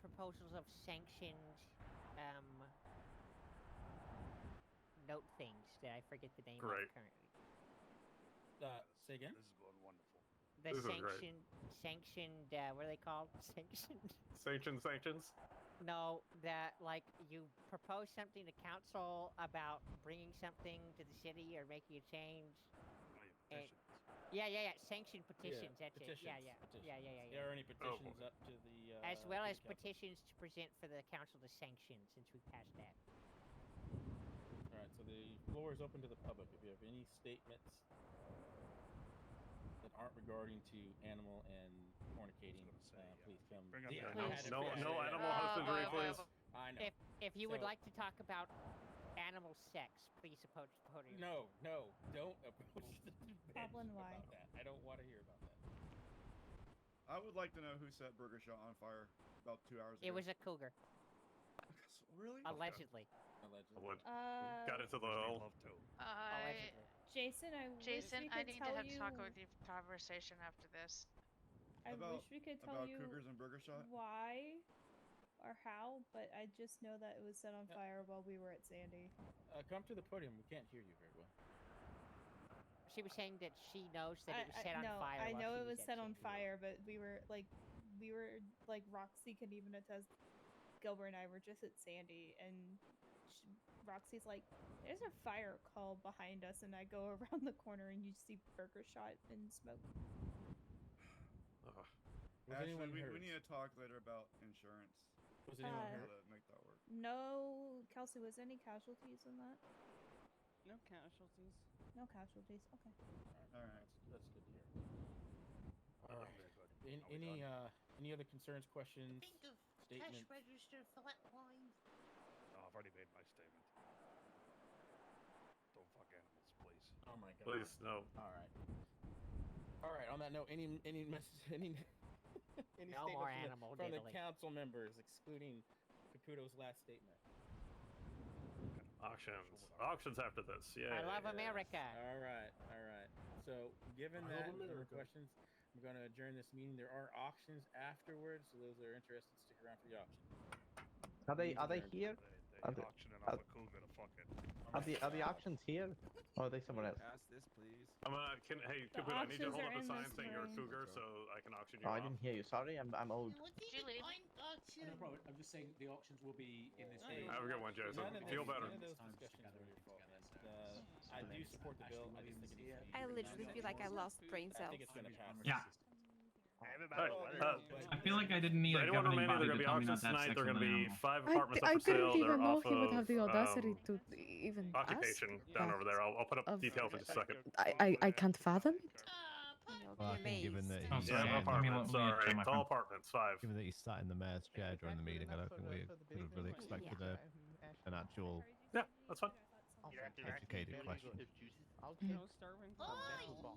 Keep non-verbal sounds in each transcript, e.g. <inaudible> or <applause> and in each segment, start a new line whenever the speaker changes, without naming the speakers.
proposals of sanctioned um note things that I forget the name
Great.
of currently.
Uh, say again.
This is going wonderful.
The
This is great.
sanctioned sanctioned uh, what are they called? <laughs> Sanctioned
Sanctions, sanctions.
No, that like you propose something to council about bringing something to the city or making a change.
My
Eh,
petitions.
Yeah, yeah, yeah. Sanctioned petitions. that's it. Yeah, yeah.
petitions, petitions.
yeah, yeah, yeah,
There are any petitions
boy.
up to the uh,
As well
to
as
the council?
petitions to present for the council to sanction, since we passed that.
All right, so the floor is open to the public. If you have any statements that aren't regarding to animal and fornicating,
gonna say,
uh,
yeah.
please come.
Bring up
Yeah,
the
I
animal.
had it
No,
figured
no
out.
animal husbandry,
Oh,
please.
I know.
If if you would
So-
like to talk about animal sex, please approach the podium.
No, no, don't approach the debate
Goblin wine.
about that. I don't want to hear about that.
I would like to know who set Burger Shot on fire about two hours ago.
It was a
<laughs>
cougar,
really.
allegedly.
I
Allegedly.
would.
Uh,
Got into the
First name
hole.
Love Toad.
I,
Allegedly.
Jason, I
Uh, Jason,
wish we could
I need to
tell
have
you,
a talk with you conversation after this.
I
About-
wish we could tell
about
you
cougars and Burger Shot.
why or how, but I just know that it was set on
Yeah.
fire while we were at Sandy.
Uh, come to the podium. We can't hear you very well.
She was saying that she knows that it was
I,
set
I,
on
no,
fire.
I
while
know
she
it was
at
set on
Sandy Hook.
fire, but we were like, we were like Roxy could even attest. Gilbert and I were just at Sandy, and sh Roxy's like, "There's a fire call behind us," and I go <laughs> around the corner and you see Burger Shot and smoke.
Ugh.
Was
Ashley,
anyone
we,
hurt?
we need to talk later about insurance.
Was anyone
Uh,
How
hurt?
to make that work.
No, Kelsey, was any casualties in that?
No casualties.
No casualties. Okay.
All right.
That's, that's good to hear.
All right.
Very good.
An-
Are we
any
done?
uh, any other concerns, questions?
of
statement.
register flat lines.
No, I've already made my statement. Don't fuck animals, please.
Oh my god.
Please, no.
All right. All right. On that note, any any message, <laughs> any any
No more
statements
animal
from, the, from the
diddling.
council members, excluding Caputo's last statement.
Auctions. Auctions after this. Yeah.
I love America.
All right. All right. So, given
I love
that and no more
America.
questions, I'm going to adjourn this meeting. There are auctions afterwards, so those that are interested, stick around for the auction.
Are they are they
Meeting's adjourned.
here?
They,
Are
they
the-
auctioning
are-
off a cougar to fuck it.
Are the are the auctions here? Or are they somewhere else?
Ask this, please.
I'm gonna. Can, hey, Kaboom, I need you to
auctions
hold
are
up a
in
sign
this
saying you're a
room.
cougar so I can auction you
Oh, I
off.
didn't hear you. Sorry, I'm I'm old.
Did you leave?
No problem. I'm just saying the auctions will be in
Oh,
this room.
yeah.
Have a good one, Jason.
None of
Feel
those-
better.
None of those
Time just
discussions
gather
were your
everything
fault, man.
together.
Uh, I
Sorry.
do support the
Ashley
bill. I just
Williams
think
here.
it's
I
Yeah,
literally
yeah,
feel
yeah.
like I lost brain
I
cells.
think it's going to pass.
Yeah.
Everybody,
Hey,
let it
uh,
go.
But-
I feel like I didn't meet
For
a
anyone
governing
remaining, they're gonna be
body to tell me not
auctions
to have
tonight.
sex
They're
with
gonna
an
be
animal.
five
I,
apartments
d- I
up for sale.
didn't
They're
even know
off
he would
of,
have the audacity
um,
to d- even
occupation
ask.
down
that.
over there. I'll, I'll put up
Of-
details in just a second.
I, I, I can't fathom it.
Fucking given that
Oh,
Yeah,
sorry. Let me- let me
apartments.
check
Sorry,
my
it's all
phone.
apartments. Five.
Given that you sat in the mayor's chair during the meeting, I don't think we would have really
Yeah.
expected a, an actual
Yeah, that's fine.
educated question.
Oh,
Oh.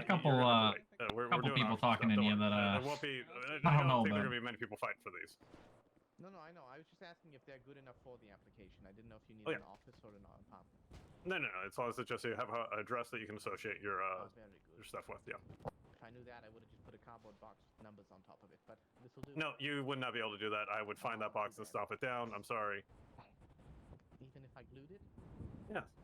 A couple,
you're gonna
uh,
have to wait. we're,
couple
doing
people
auctions,
talking in
don't
here
worry.
that, uh,
There won't be. I
I
don't,
don't know,
think there
but-
are gonna be many people fighting for these.
No, no, I know. I was just asking if they're good enough for the application. I didn't know if you need
Oh, yeah.
an office or an apartment.
No, no, no. It's always just you have a- a address that you can associate your uh,
oh, very good.
your stuff with. Yeah.
If I knew that, I would have just put a cardboard box with numbers on top of it. But this will do.
No, you would not be able to do that. I would find that box and stomp it down. I'm sorry.
Even if I glued it. Oh.
Yeah.